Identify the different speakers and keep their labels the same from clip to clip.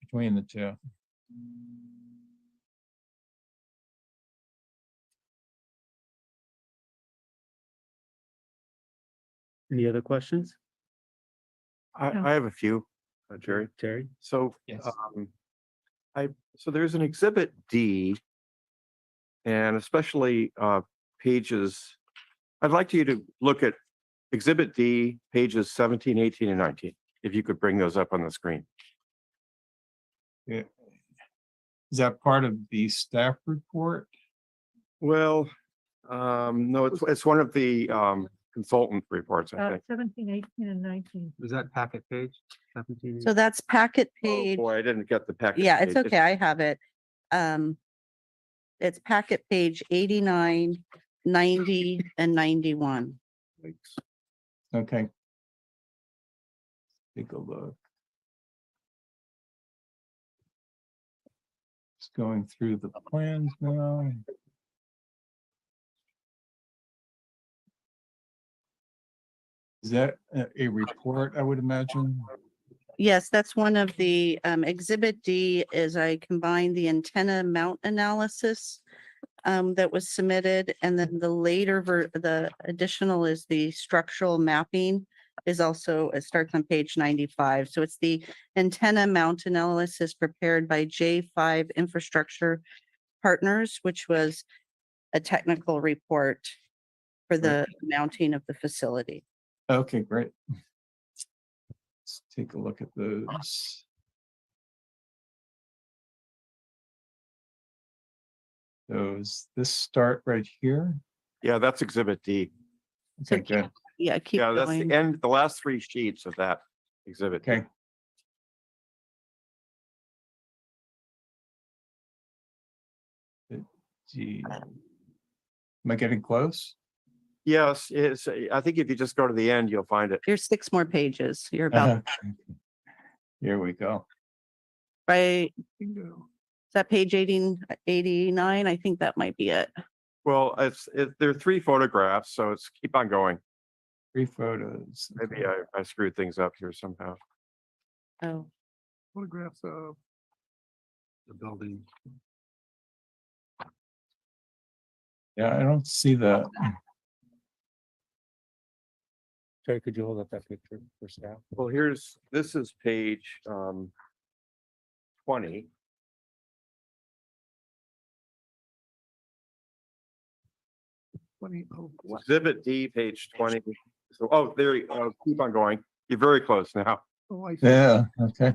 Speaker 1: between the two.
Speaker 2: Any other questions?
Speaker 3: I,
Speaker 4: Yeah.
Speaker 3: I have a few, uh, Jerry.
Speaker 2: Terry?
Speaker 3: So,
Speaker 1: Yes.
Speaker 3: um, I, so there's an exhibit D and especially, uh, pages, I'd like you to look at exhibit D, pages 17, 18, and 19, if you could bring those up on the screen.
Speaker 1: Is that part of the staff report?
Speaker 3: Well, um, no, it's, it's one of the, um, consultant reports, I
Speaker 4: Uh,
Speaker 3: think.
Speaker 4: seventeen, eighteen and nineteen.
Speaker 2: Was that packet page? Seventeen.
Speaker 5: So that's packet
Speaker 3: Oh,
Speaker 5: page.
Speaker 3: Boy, I didn't get the packet.
Speaker 5: Yeah, it's
Speaker 3: page.
Speaker 5: okay. I have it. Um, it's packet page 89, 90, and ninety-one.
Speaker 1: Okay. Take a look. Just going through the plans now. Is that a- a report, I would imagine?
Speaker 5: Yes, that's one of the, um, exhibit D is I combined the antenna mount analysis um, that was submitted and then the later ver, the additional is the structural mapping is also, it starts on page ninety-five. So it's the antenna mount analysis prepared by J five Infrastructure Partners, which was a technical report for the mounting of the facility.
Speaker 1: Okay, great. Let's take a look at those. Those, this start right here.
Speaker 3: Yeah, that's exhibit D.
Speaker 1: Okay,
Speaker 5: keep
Speaker 1: good.
Speaker 5: Yeah, keep
Speaker 3: Yeah, that's the
Speaker 5: going.
Speaker 3: end, the last three sheets of that exhibit. D.
Speaker 1: Okay. Uh, gee. Am I getting close?
Speaker 3: Yes, it's, eh, I think if you just go to the end, you'll find it.
Speaker 5: You're six more pages. You're about
Speaker 1: Uh, Here we go.
Speaker 5: Right, is that page eighteen, eighty-nine? I think that might be it.
Speaker 3: Well, it's, it, there are three photographs, so it's keep on going.
Speaker 1: Three photos.
Speaker 3: Maybe uh, I, I screwed things up here somehow.
Speaker 5: Oh,
Speaker 2: Photographs of the building.
Speaker 1: Yeah, I don't see that.
Speaker 2: Terry, could you hold up that picture for staff?
Speaker 3: Well, here's, this is page, um, twenty. Exhibit D, page twenty. So, oh, there, you- oh, keep on going. You're very close now.
Speaker 1: Yeah, okay.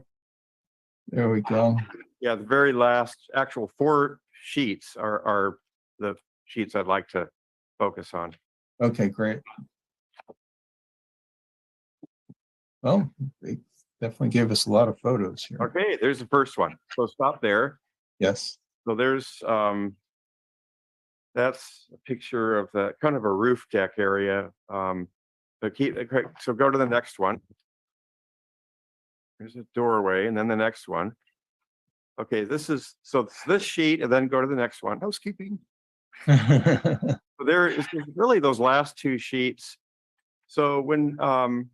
Speaker 1: There we go.
Speaker 3: Yeah, the very last actual four sheets are, are the sheets I'd like to focus on.
Speaker 1: Okay, great. Well, they definitely gave us a lot of photos here.
Speaker 3: Okay, there's the first one. So stop there.
Speaker 1: Yes,
Speaker 3: So there's, um, that's a picture of the, kind of a roof deck area. Um, so keep, okay, so go to the next one. There's a doorway and then the next one. Okay, this is, so it's this sheet and then go to the next one. Housekeeping.
Speaker 1: yeah,
Speaker 3: So there is really those last two sheets. So when, um,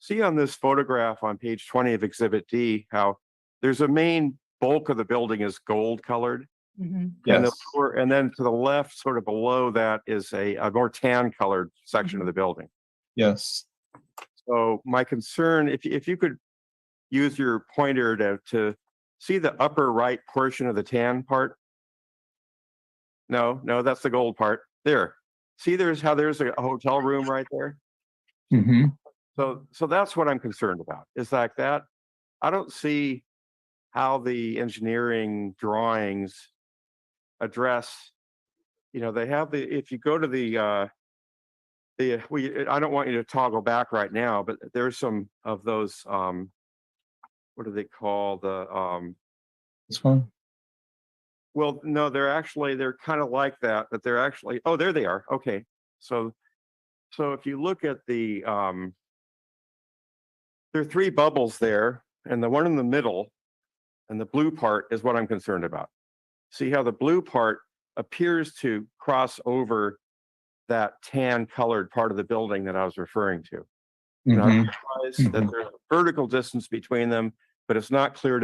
Speaker 3: see on this photograph on page twenty of exhibit D, how there's a main bulk of the building is gold colored. And the lower- and then to the left, sort of below that is a, a more tan colored section of the building.
Speaker 1: yes,
Speaker 3: So my concern, if, if you could use your pointer to, to see the upper right portion of the tan part? No, no, that's the gold part. There. See, there's how there's a hotel room right there.
Speaker 1: hmm
Speaker 3: So, so that's what I'm concerned about is like that. I don't see how the engineering drawings address, you know, they have the, if you go to the, uh, the, uh, we, I don't want you to toggle back right now, but there's some of those, um, what do they call the, um,
Speaker 1: this one,
Speaker 3: well, no, they're actually, they're kind of like that, but they're actually, oh, there they are. Okay. So, so if you look at the, um, there are three bubbles there and the one in the middle and the blue part is what I'm concerned about. See how the blue part appears to cross over that tan colored part of the building that I was referring to. And I
Speaker 1: Mhm.
Speaker 3: realize that there's a vertical distance between them, but it's not clear to